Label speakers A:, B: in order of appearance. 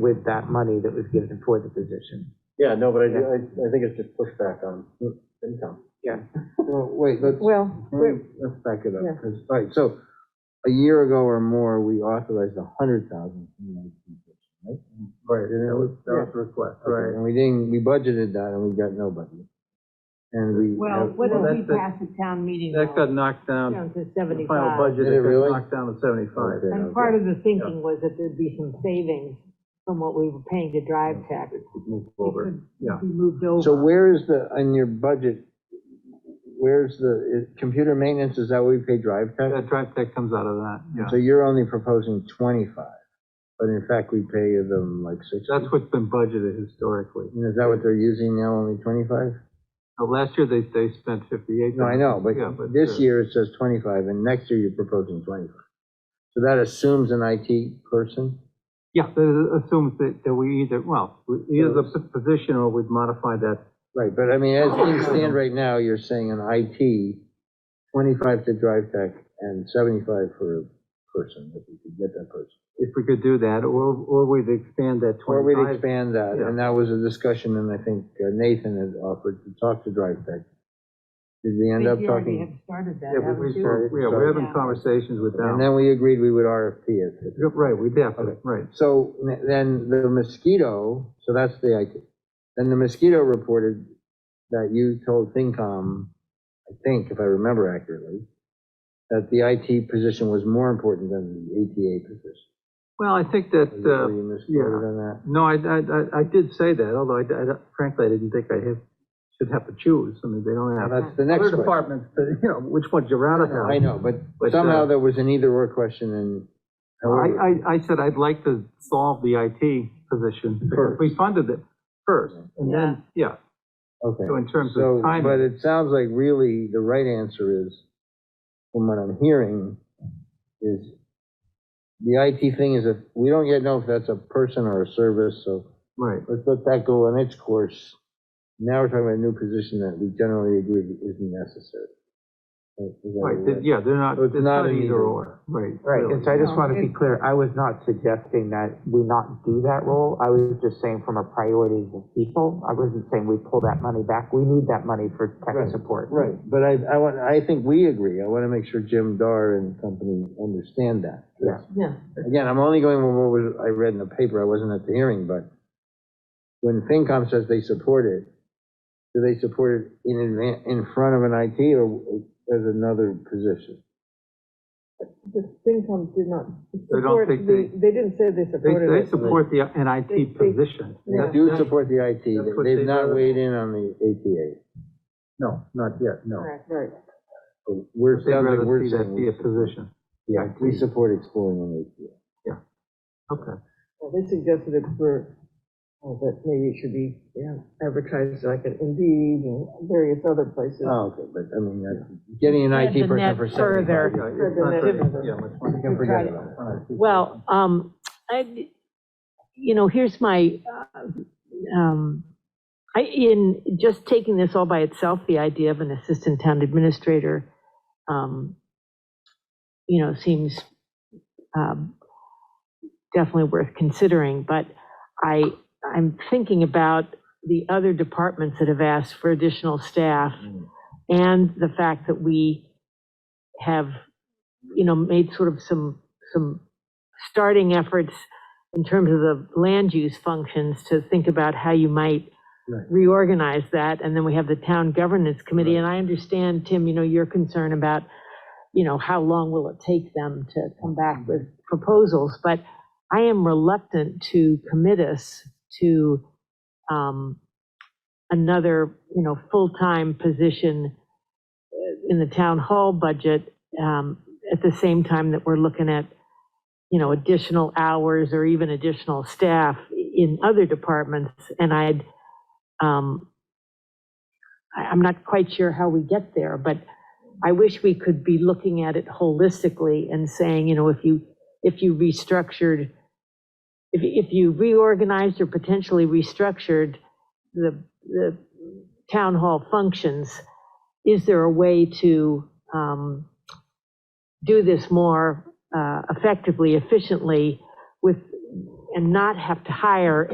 A: with that money that was given for the position.
B: Yeah, no, but I, I, I think it's just pushback on income.
A: Yeah.
C: Well, wait, let's,
D: Well, we're-
C: let's back it up,
D: Yeah.
C: 'cause, all right, so, a year ago or more, we authorized a hundred thousand from the IT position, right?
B: Right, and
C: that was- that was
B: the request,
C: Okay, And we didn't, we budgeted that, and we got nobody, and we.
E: Well,
C: have-
E: what
B: Well,
E: did
B: that's
E: we
B: the-
E: pass at town meeting?
B: That
E: though?
B: got knocked down,
E: Down to
B: the
E: 75.
B: final budget,
C: Did it
B: it got
C: really?
B: knocked down to seventy-five.
C: Okay,
E: And
C: okay.
E: part of the thinking was that there'd be some savings from what we were paying to drive tax. It
B: Move
E: could
B: over, yeah.
E: Be moved
C: So
E: over.
C: where is the, in your budget, where's the, is- computer maintenance, is that what we pay drive tech?
B: That drive tech comes out of that,
C: So
B: yeah.
C: you're only proposing twenty-five, but in fact, we pay them like six.
B: That's what's been budgeted historically.
C: Is that what they're using now, only twenty-five?
B: Now, last year, they, they spent fifty-eight.
C: No, I know, but
B: Yeah, but,
C: this
B: uh,
C: year it says twenty-five, and next year you're proposing twenty-five. So that assumes an IT person?
B: Yeah, that assumes that, that we either, well, we- either the position or we'd modify that.
C: Right, but I mean, as things stand right now, you're saying an IT, twenty-five to drive tech, and seventy-five for a person, if we could get that person.
B: If we could do that, or, or we'd expand that
C: Or we'd
B: twenty-five.
C: expand that,
B: yeah.
C: and that was a discussion, and I think uh, Nathan had offered to talk to drive tech. Did we
E: I
C: end
E: think
C: up
E: you already have
C: talking?
E: started that,
B: Yeah, we-
E: haven't
B: we-
E: you?
C: started.
B: yeah, we're having
E: Yeah.
B: conversations with
C: And
B: them.
C: then we agreed we would RFP it.
B: Yep, Right, we definitely, right.
C: So n- then the mosquito, so that's the idea. Then the mosquito reported that you told ThinkCom, I think, if I remember accurately, that the IT position was more important than the ATA position.
B: Well, I think that,
C: Is that where
B: uh,
C: you misquoted
B: yeah.
C: on that?
B: no, I, I, I- I did say that, although I, I frankly, I didn't think I had- should have to choose. I mean, they don't have.
C: That's the
B: Other
C: next question.
B: departments, but, you know, which one's your round of
C: I know, but
B: But,
C: somehow
B: uh,
C: there was an either-or question and.
B: I, I, I said I'd like to solve the IT position, because
C: First.
B: we funded it first, and then, yeah,
C: Okay.
B: so in terms
C: So,
B: of timing.
C: but it sounds like really the right answer is, from what I'm hearing, is the IT thing is a, we don't yet know if that's a person or a service, so
B: Right,
C: let's let that go on its course. Now we're talking about a new position that we generally agree isn't necessary. Is that
B: right,
C: right?
B: th- yeah, they're not,
C: So it's
B: it's
C: not
B: not
C: an either.
B: either or, right.
A: Right,
B: really.
A: and so I just want to be clear, I was not suggesting that we not do that role. I was just saying from a priorities of people, I wasn't saying we pull that money back. We need that money for
C: Right,
A: tech support.
C: Right, but I, I want, I think we agree. I want to make sure Jim Dar and company understand that.
A: Yeah.
E: Yeah.
C: Again, I'm only going with what was, I read in the paper, I wasn't at the hearing, but when FinCom says they support it, do they support it in advan, in front of an IT or as another position?
D: the FinCom did not
B: don't
D: support,
B: think
D: the-
B: they-
D: they didn't say they
B: They,
D: supported it.
B: they support the, an
D: They- they-
B: IT position.
D: Yeah.
C: They do support the IT,
B: That's what
C: They- they've
B: they
C: not
B: voted.
C: weighed in on the ATA.
B: No, not yet, no.
D: Correct, right.
C: But We're,
B: They'd
C: sounds like
B: rather
C: we're
B: see that
C: saying,
B: be a
C: we support-
B: position.
C: yeah, we support exploring an ATA.
B: Okay,
D: Well, They suggested it for, oh, that maybe it should be, you know, advertised like an Indeed and various other places.
C: Oh, okay, but I mean, that's, getting an IT
E: the
C: person
E: net
C: for
E: further.
C: seventy-five.
B: yeah,
D: For
B: it's
D: the
B: not
D: next-
B: very- yeah, much more.
C: We can forget about it.
E: Well, um, I, you know, here's my, uh, um, I, in just taking this all by itself, the idea of an assistant town administrator, um, you know, seems, um, definitely worth considering, but I, I'm thinking about the other departments that have asked for additional staff and the fact that we have, you know, made sort of some, some starting efforts in terms of the land use functions to think about how you might
C: Right.
E: reorganize that. And then we have the town governance committee. And I understand, Tim, you know, your concern about, you know, how long will it take them to come back with proposals? But I am reluctant to commit us to um, another, you know, full-time position uh, in the town hall budget um, at the same time that we're looking at you know, additional hours or even additional staff in other departments, and I'd, um, I, I'm not quite sure how we get there, but I wish we could be looking at it holistically and saying, you know, if you, if you restructured, if, if you reorganized or potentially restructured the, the town hall functions, is there a way to, um, do this more uh, effectively, efficiently, with and not have to hire